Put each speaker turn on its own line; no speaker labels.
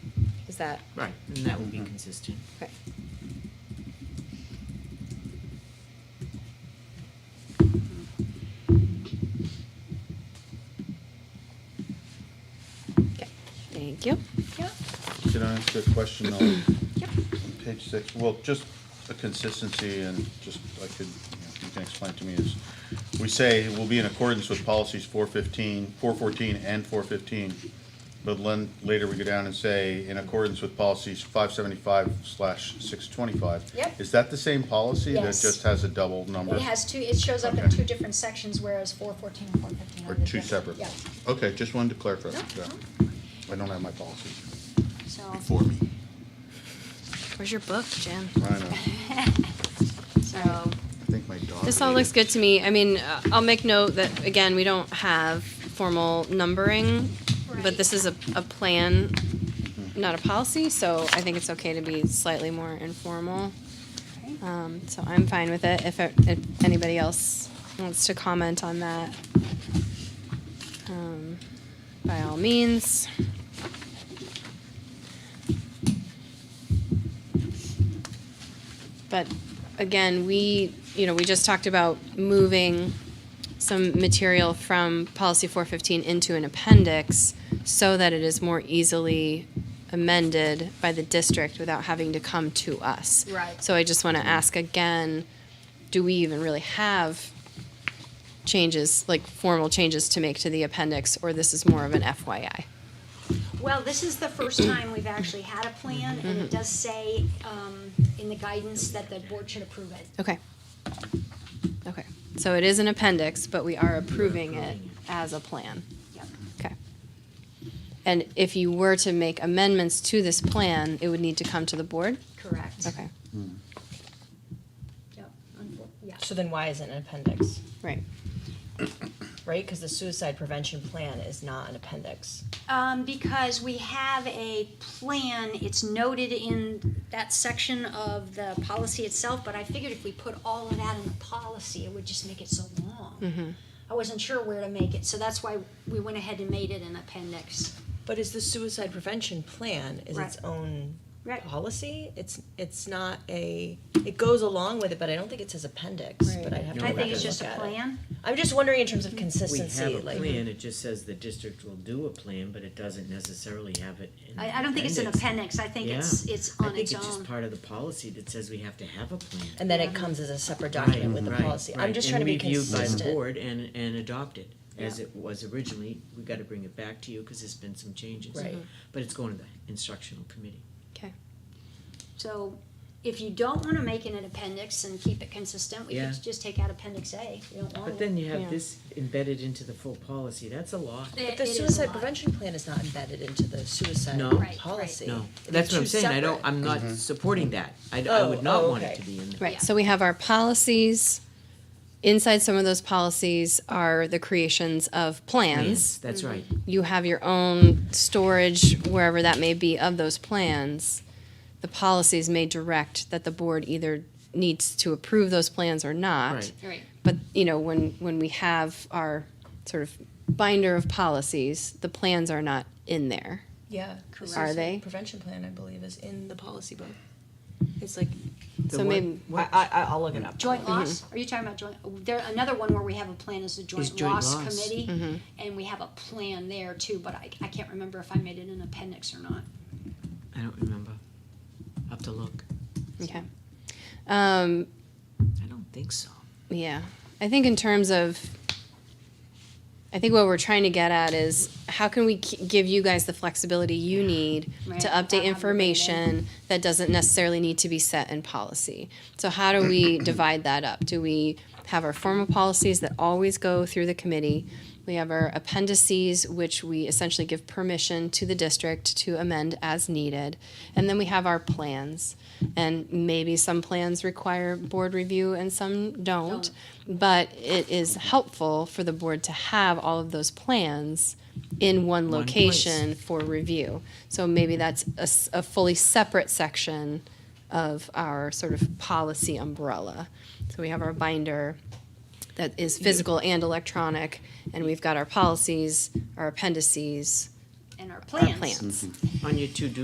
Is that,
Right, and that would be consistent.
okay. Okay, thank you. Yeah.
Can I ask a question on
Yep.
page six? Well, just a consistency and just, I could, you know, if you can explain to me is, we say we will be in accordance with policies 415, 414, and four fifteen. But then later we go down and say, in accordance with policies five seventy-five slash six twenty-five.
Yep.
Is that the same policy that
Yes.
just has a double number?
It has two, it shows up in
Okay.
two different sections, whereas four fourteen and four fifteen are
Or
the
two
different-
separate?
Yeah,
Okay, just wanted to clarify.
No,
Yeah. I don't have my policies
so.
before me.
Where's your book, Jen?
I know. I
So
think my dog.
this all
ate
looks
it.
good to me. I mean, uh, I'll make note that again, we don't have formal numbering, but
Right.
this is a, a plan, not a policy. So I think it's okay to be slightly more informal. Um, so I'm fine with it. If, it- if anybody else wants to comment on that, um, by all means. But again, we, you know, we just talked about moving some material from policy 415 into an appendix so that it is more easily amended by the district without having to come to us.
Right.
So I just want to ask again, do we even really have changes, like formal changes to make to the appendix, or this is more of an FYI?
Well, this is the first time we've actually had a plan, and it does say, um, in the guidance that the board should approve it.
Okay. Okay, so it is an appendix, but we are approving it as a plan.
Yep.
Okay. And if you were to make amendments to this plan, it would need to come to the board?
Correct.
Okay,
Yep, unfor- yeah.
So then why is it an appendix,
right.
right? Because the suicide prevention plan is not an appendix.
Um, because we have a plan, it's noted in that section of the policy itself, but I figured if we put all of that in the policy, it would just make it so long.
Mm-hmm.
I wasn't sure where to make it, so that's why we went ahead and made it an appendix.
But is the suicide prevention plan is its
Right.
own
Right.
Oh, policy? It's, it's not a, it goes along with it, but I don't think it says appendix, but I'd have to
I
go back
think it's
and
just a
look at it.
plan.
I'm just wondering in terms of
We have
consistency,
a
like.
plan, it just says the district will do a plan, but it doesn't necessarily have it in.
I, I don't think it's an appendix, I think it's, it's
I
on
think
its
it's just
own.
part of the policy that says we have to have a plan.
And then it comes as a separate document with the
Right,
policy. I'm
right,
just
and
trying to be
Reviewed by the
consistent.
board and, and adopted, as it was originally, we gotta bring it back to you, cause there's been some changes.
Right.
But it's going to the instructional committee.
Okay,
So if you don't wanna make it an appendix and keep it consistent, we
Yeah.
could just take out appendix A, you don't
Oh,
want it.
But then you
Yeah.
have this embedded into the full policy, that's a lot.
It-
The
it is a
suicide
lot.
prevention plan is not embedded into the suicide
No.
Right, right.
policy.
No,
They're
that's what I'm
two
saying, I don't,
separate.
I'm not supporting that, I, I
Oh,
would not
oh,
want it
okay.
to be in there.
Yeah.
right, so we have our policies. Inside some of those policies are the creations of
Yes,
plans.
That's right.
Mm-hmm.
You have your own storage, wherever that may be, of those plans. The policies may direct that the board either needs to approve those plans or not.
Right.
Right.
But, you know, when, when we have our sort of binder of policies, the plans are not in there.
Yeah. the
Are
suicide
they?
Prevention plan, I believe, is in the policy book. It's like,
So
The what-
maybe-
I,
what-
I, I'll look it up.
Joint
Mm-hmm.
loss, are you talking about joint, there, another one where we have a plan is the joint
joint
loss
loss.
committee, and we have a plan there too, but I, I can't remember if I made it an appendix or not.
I don't remember. Have to look.
Okay. Um,
I don't think so.
yeah. I think in terms of, I think what we're trying to get at is how can we k- give you guys the flexibility you need
Right,
to
without having
update
to
information that doesn't necessarily need to be set in policy? So how do we divide that up? Do we have our formal policies that always go through the committee? We have our appendices, which we essentially give permission to the district to amend as needed. And then we have our plans. And maybe some plans require board review and some don't. But it is helpful for the board to have all of those plans in one
One place.
location for review. So maybe that's a, s- a fully separate section of our sort of policy umbrella. So we have our binder that is physical and electronic, and we've got our policies, our appendices,
And our
our
plans.
plans.
On your to-do